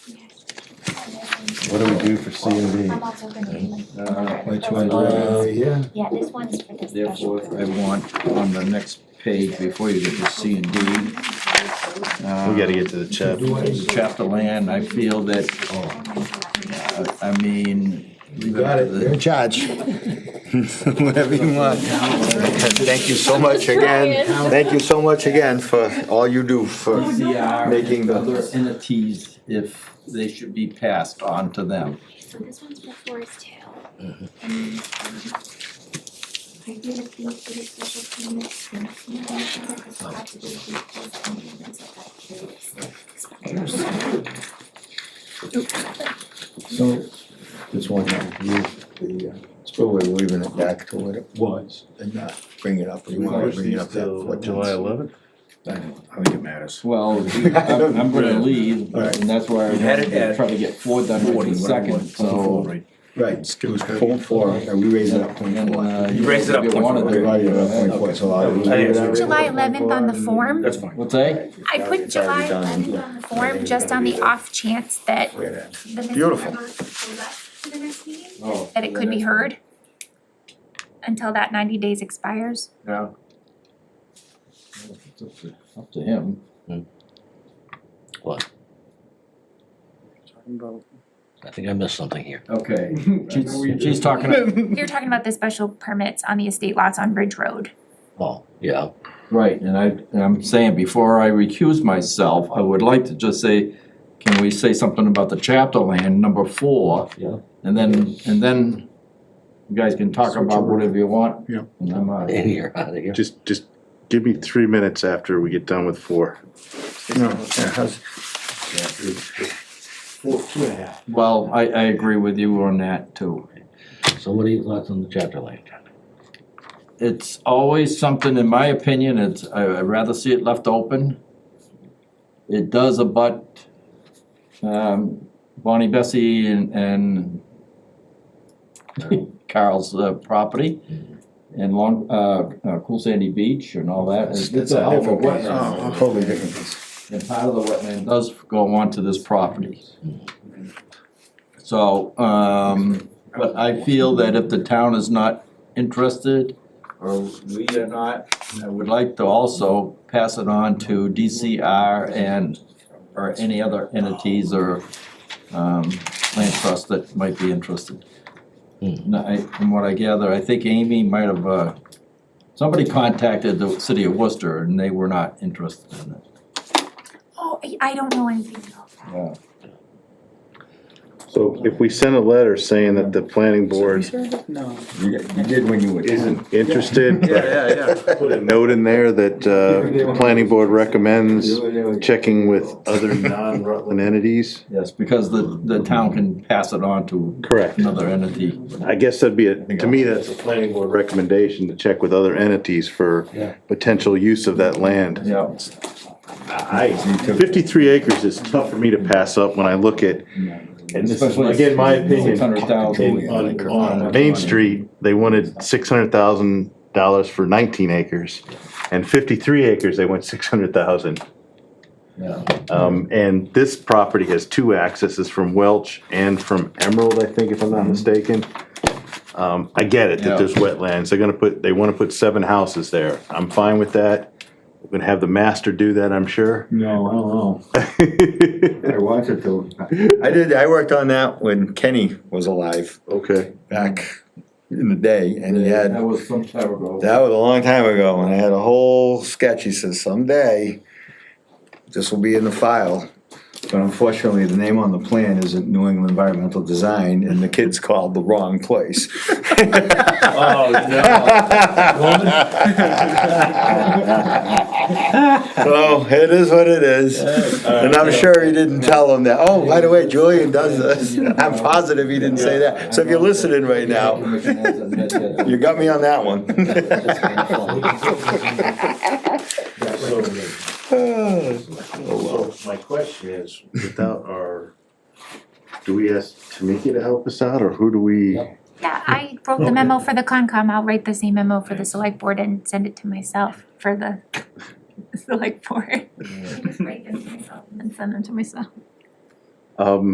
What do we do for C and I'm D? also gonna do like. Uh, another Which proposal. one do Uh, I? Yeah. Yeah, this one is for the special. Therefore, I want on the next page, before you get to C and D. We gotta get to the uh, chapter. the Chapter land, I feel that, uh, I mean. You got it, you're in charge. Whatever you want. Thank you so much again, thank you so much again for all you do for making Making the- Other entities, if they should be passed on to them. So this one's for Forest Hill. And, um, I did a fee for the special permit. and if you want to look at the possibility of this, I'm gonna set that curious spectrum. So, this one, you, the uh, spillway, we're leaving it back to what it was and not bring it up. We wanna bring it up that what July eleventh? I don't I don't think it matters. Well, I'm, I'm gonna leave, All right. and that's why I'm had it gonna at try to get four done right in a second, so. Right, it was point four, and we raised it up point and, four. uh, You raised it up if you point wanted four. We to- raised it up point four, so Oh, I- we raised it up July point 11th on the four and- form? That's fine. What's that? I put It's already July done. 11th on the form just on the off chance that Wait a minute. the Missy Beautiful. River goes up to the next meeting, Oh, that it could be heard until that 90 days expires. Yeah. It's Up to- up to him. I think I missed something here. Okay, she's, she's talking, You're talking about the special permits on the estate lots on Ridge Road. Oh, yeah, right, and I, and I'm saying, before I recuse myself, I would like to just say, can we say something about the chapter land, number four? Yeah. And then, and then you guys can talk about whatever you want. Yeah. And I'm, uh, in here, out of here. Just, just give me three minutes after we get done with four. No, yeah, how's- Four, two and a half. well, I, I agree with you on that too. So what are your thoughts on the chapter land? it's always something, in my opinion, it's, I- I'd rather see it left open. It does abut, um, Bonnie Bessie and, and Carl's uh, property and Long, uh, uh, Cool Sandy Beach and all that. It's- It's a hell of Oh. a Different piece. wetland, Totally different piece. and part of the wetland does go onto this property. So, um, but I feel that if the town is not interested, or we are not, I would like to also pass it on to DCR and, or any other entities or, um, land trust that might be interested. Mhm. No, I, from what I gather, I think Amy might have, uh, somebody contacted the city of Worcester and they were not interested in it. Oh, I- I don't know anything about that. Yeah. So if we send a letter saying that the planning board No. You you did when you were. isn't interested, but yeah, yeah. put a note in there that, uh, the planning board recommends checking with other non-Rutland entities. Yes, because the, the town can pass it on to Correct. another entity. I guess that'd be, a to me, that's a planning board recommendation to check with other entities for Yeah. potential use of that land. Yeah. I, fifty-three acres is tough for me to pass up when I look at, and this is, Especially again, my opinion. Six hundred in- thousand. On, on Main Street, they wanted six hundred thousand dollars for nineteen acres, and fifty-three acres, they went six hundred thousand. Yeah. Um, and this property has two accesses from Welch and from Emerald, I think, if I'm not mistaken. Um, I get it Yeah. that there's wetlands, they're gonna put, they wanna put seven houses there, I'm fine with that. We're gonna have the master do that, I'm sure. No, I don't know. I wanted to. I did, I worked on that when Kenny was alive Okay. back in the day and he had, That was some time ago. that was a long time ago and I had a whole sketch. He says someday this will be in the file. But unfortunately, the name on the plan isn't New England Environmental Design and the kids called the wrong place. Oh, So it is what it is, and I'm sure he didn't tell him that, oh, by the way, Julian does this, I'm positive he didn't say that, so if you're listening right now, you got me on that one. So Oh, my question is, without our, do we ask Tamika to help us out, or who do we? Yeah, I wrote the memo for the Concom. I'll write the same memo for the select board and send it to myself for the select board. I just write this myself. And send them to myself. Um,